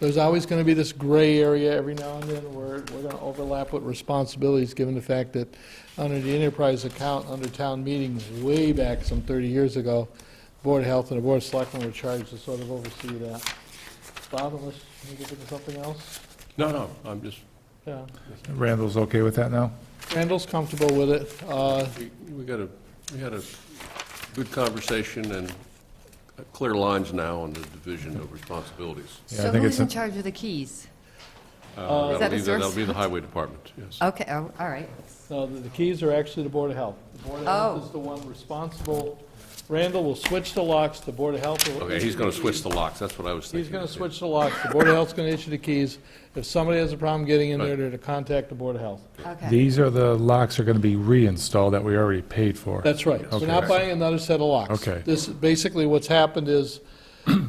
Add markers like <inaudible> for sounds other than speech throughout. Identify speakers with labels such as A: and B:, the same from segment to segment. A: there's always going to be this gray area every now and then where we're going to overlap with responsibilities, given the fact that under the enterprise account, under town meetings, way back some 30 years ago, Board of Health and the Board of Selectmen were charged to sort of oversee that. Bob, unless you get into something else?
B: No, no, I'm just,
A: Yeah.
C: Randall's okay with that now?
A: Randall's comfortable with it. Uh,
B: we we got a, we had a good conversation and clear lines now on the division of responsibilities.
C: Yeah, I
D: So
C: think
D: who's
C: it's
D: in
C: a-
D: charge of the keys?
B: Uh,
D: Is
B: That'll
D: that
B: be,
D: the
B: the- that'll
D: source?
B: be the highway department,
A: Uh,
B: yes.
D: Okay, oh, all right.
A: No, the the keys are actually the Board of Health. The Board of Health
D: Oh.
A: is the one responsible. Randall will switch the locks, the Board of Health will...
B: Okay, he's going to switch the locks, that's what I was thinking.
A: He's going to switch the locks. The Board of Health's going to issue the keys. If somebody has a problem getting in there,
B: Right.
A: they're to contact the Board of Health.
D: Okay,
C: These are the locks are going to be reinstalled that we already paid for.
A: That's right. We're not
C: Okay.
A: buying another set of locks.
C: Okay.
A: This, basically, what's happened is,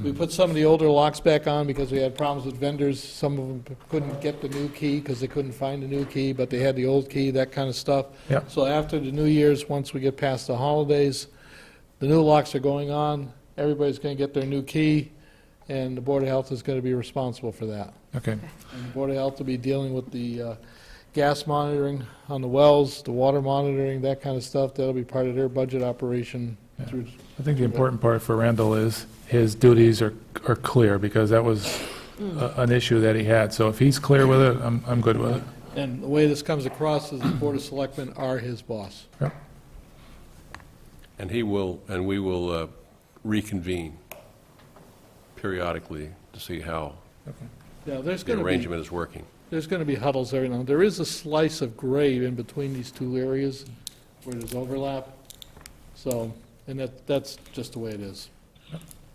A: we put some of the older locks back on because we had problems with vendors. Some of them couldn't get the new key because they couldn't find the new key, but they had the old key, that kind of stuff.
C: Yep.
A: So after the New Year's, once we get past the holidays, the new locks are going on, everybody's going to get their new key, and the Board of Health is going to be responsible for that.
C: Okay,
A: And the Board of Health will be dealing with the uh, gas monitoring on the wells, the water monitoring, that kind of stuff. That'll be part of their budget operation through,
C: I think the important part for Randall is his duties are, are clear, because that was
D: Hmm.
C: a- an issue that he had. So if he's clear with it, I'm, I'm good with it.
A: and the way this comes across is the Board of Selectmen are his boss.
C: Yep.
B: And he will, and we will uh, reconvene periodically to see how
A: Yeah, there's
B: the
A: going to be,
B: arrangement is working.
A: there's going to be huddles every now and then. There is a slice of gray in between these two areas where there's overlap, so, and that, that's just the way it is.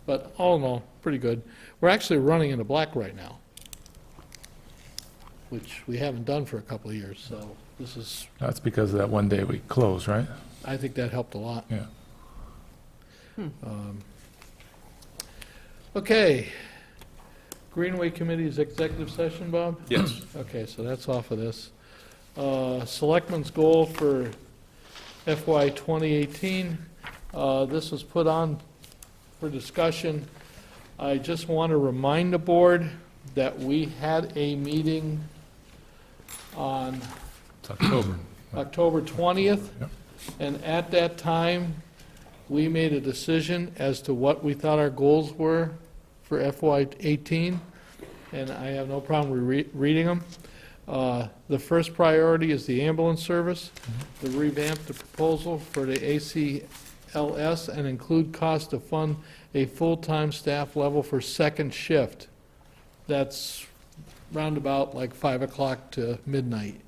A: But all in all, pretty good. We're actually running in the black right now, which we haven't done for a couple of years, so this is,
C: That's because of that one day we closed, right?
A: I think that helped a lot. Um,
C: Yeah.
A: Okay. Greenway Committee's executive session, Bob?
B: Yes,
A: Okay, so that's off of this. Uh, Selectmen's goal for FY 2018, uh, this was put on for discussion. I just want to remind the board that we had a meeting on
C: It's
D: <clears throat>
C: October.
A: October 20th,
C: Yep.
A: and at that time, we made a decision as to what we thought our goals were for FY '18, and I have no problem re- reading them. Uh, The first priority is the ambulance service, to revamp the proposal for the ACLS and include cost to fund a full-time staff level for second shift. That's roundabout like 5 o'clock to midnight.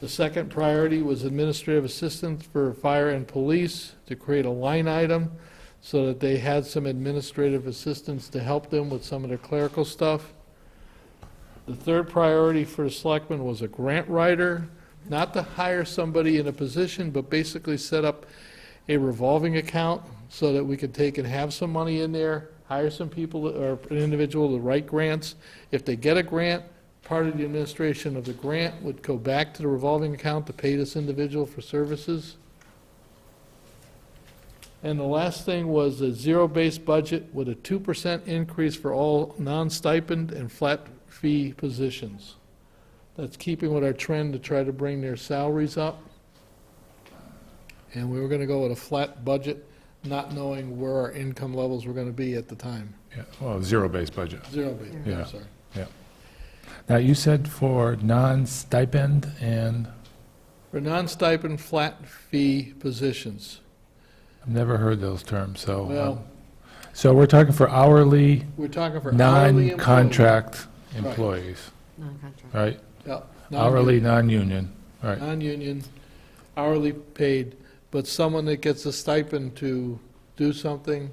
A: The second priority was administrative assistance for fire and police to create a line item so that they had some administrative assistance to help them with some of their clerical stuff. The third priority for the selectmen was a grant writer, not to hire somebody in a position, but basically set up a revolving account so that we could take and have some money in there, hire some people or an individual to write grants. If they get a grant, part of the administration of the grant would go back to the revolving account to pay this individual for services. And the last thing was a zero-based budget with a 2% increase for all non-stipend and flat fee positions. That's keeping with our trend to try to bring their salaries up. And we were going to go with a flat budget, not knowing where our income levels were going to be at the time.
C: Yeah, well, zero-based budget.
A: Zero-based,
C: Yeah.
A: I'm sorry.
C: Now, you said for non-stipend and,
A: For non-stipend, flat fee positions.
C: I've never heard those terms, so. um,
A: Well-
C: So we're talking for hourly,
A: We're talking for hourly employees.
C: non-contract
A: Right.
C: employees,
D: non-contract.
C: right?
A: Yeah,
C: Hourly, non-union,
A: non-union-
C: right.
A: Non-union, hourly paid, but someone that gets a stipend to do something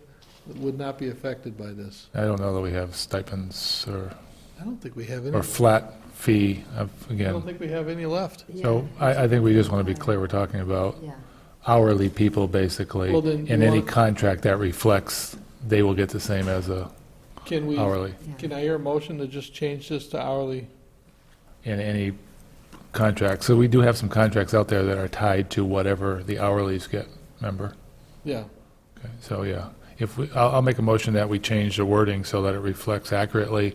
A: would not be affected by this.
C: I don't know that we have stipends or,
A: I don't think we have any,
C: or flat fee, of-
A: I don't
C: again.
A: think we have any left.
C: So I, I think we just want to be clear, we're talking about
D: Yeah,
C: hourly people, basically.
A: Well, then
C: And
A: you
C: any
A: want-
C: contract that reflects, they will get the same as a
A: Can we,
C: hourly.
D: yeah.
A: can I hear a motion to just change this to hourly?
C: in any contract. So we do have some contracts out there that are tied to whatever the hourlies get, remember?
A: Yeah,
C: Okay, So, yeah, if we, I'll, I'll make a motion that we change the wording so that it reflects accurately